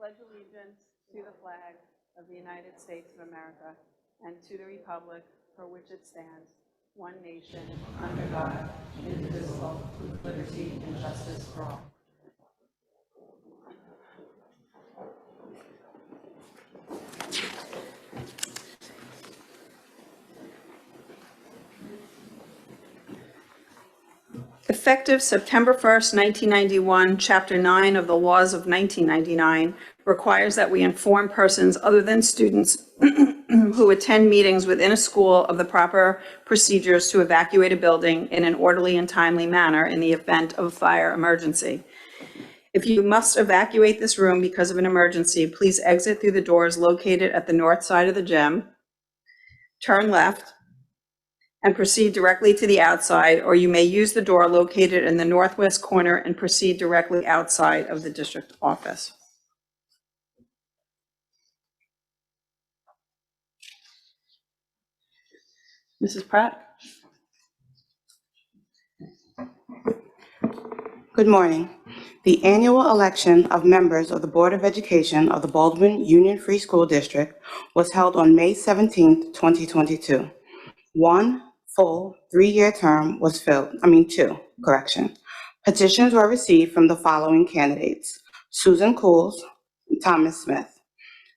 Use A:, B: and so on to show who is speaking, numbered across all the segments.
A: allegiance to the flag of the United States of America and to the republic for which it stands, one nation, under God, indivisible, with liberty and justice for all.
B: Effective September 1st, 1991, Chapter 9 of the laws of 1999 requires that we inform persons other than students who attend meetings within a school of the proper procedures to evacuate a building in an orderly and timely manner in the event of a fire emergency. If you must evacuate this room because of an emergency, please exit through the doors located at the north side of the gym, turn left, and proceed directly to the outside, or you may use the door located in the northwest corner and proceed directly outside of the district office. Mrs. Pratt?
C: Good morning. The annual election of members of the Board of Education of the Baldwin Union Free School District was held on May 17, 2022. One full three-year term was filled, I mean, two, correction. Petitions were received from the following candidates: Susan Cools, Thomas Smith.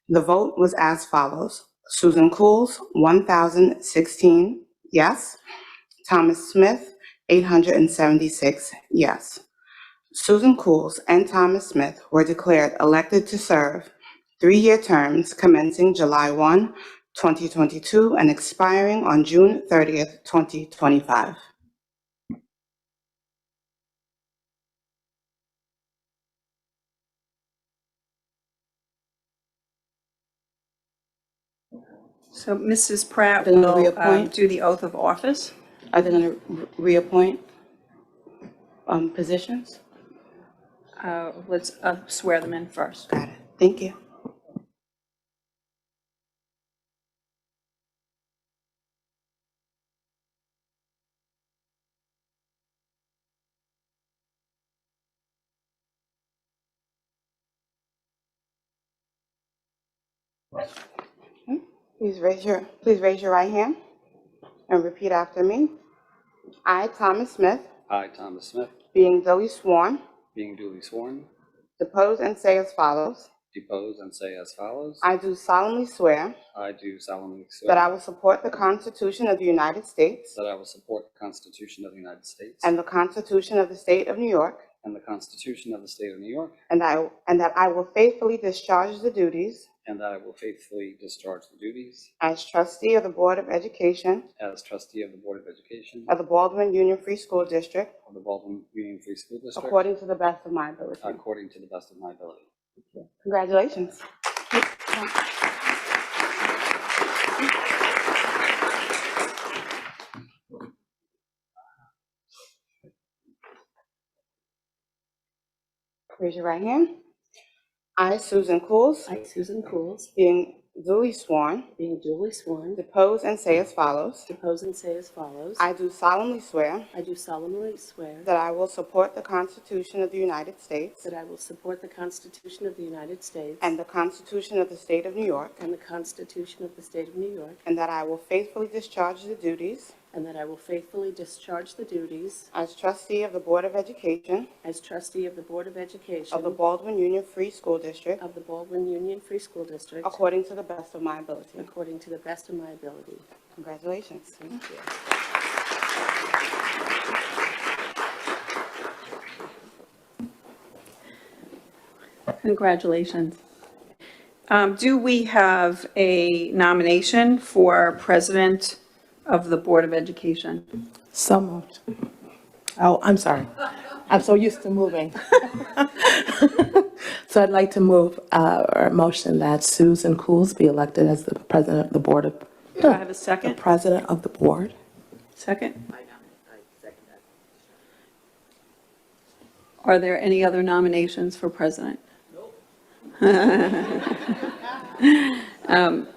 C: The vote was as follows: Susan Cools, 1,016 yes. Thomas Smith, 876 yes. Susan Cools and Thomas Smith were declared elected to serve three-year terms commencing July 1, 2022, and expiring on June 30th, 2025.
B: So Mrs. Pratt
C: Then we
B: will um,
C: appoint-
B: do the oath of office.
C: Are they going to reappoint um, positions?
B: Uh, Let's uh, swear them in first.
C: Got it. Thank you. Please raise your, please raise your right hand and repeat after me. I, Thomas Smith,
D: I, Thomas Smith,
C: being duly sworn,
D: being duly sworn,
C: depose and say as follows.
D: depose and say as follows.
C: I do solemnly swear
D: I do solemnly swear
C: That I will support the Constitution of the United States
D: that I will support the Constitution of the United States
C: and the Constitution of the State of New York,
D: and the Constitution of the State of New York,
C: and I, and that I will faithfully discharge the duties
D: and that I will faithfully discharge the duties
C: as trustee of the Board of Education
D: as trustee of the Board of Education
C: of the Baldwin Union Free School District
D: of the Baldwin Union Free School District
C: according to the best of my ability.
D: according to the best of my ability.
C: Congratulations. Raise your right hand. I, Susan Cools,
E: I, Susan Cools,
C: being duly sworn,
E: being duly sworn,
C: depose and say as follows.
E: depose and say as follows.
C: I do solemnly swear
E: I do solemnly swear
C: that I will support the Constitution of the United States
E: that I will support the Constitution of the United States
C: and the Constitution of the State of New York,
E: and the Constitution of the State of New York,
C: and that I will faithfully discharge the duties
E: and that I will faithfully discharge the duties
C: As trustee of the Board of Education
E: as trustee of the Board of Education
C: of the Baldwin Union Free School District,
E: of the Baldwin Union Free School District
C: according to the best of my ability.
E: according to the best of my ability.
C: Congratulations.
B: Congratulations. Um, Do we have a nomination for president of the Board of Education?
F: So moved. Oh, I'm sorry. I'm so used to moving. So I'd like to move, uh, or motion that Susan Cools be elected as the president of the board of,
B: Do I have a
F: the
B: second?
F: president of the board.
B: Second? Are there any other nominations for president? Um,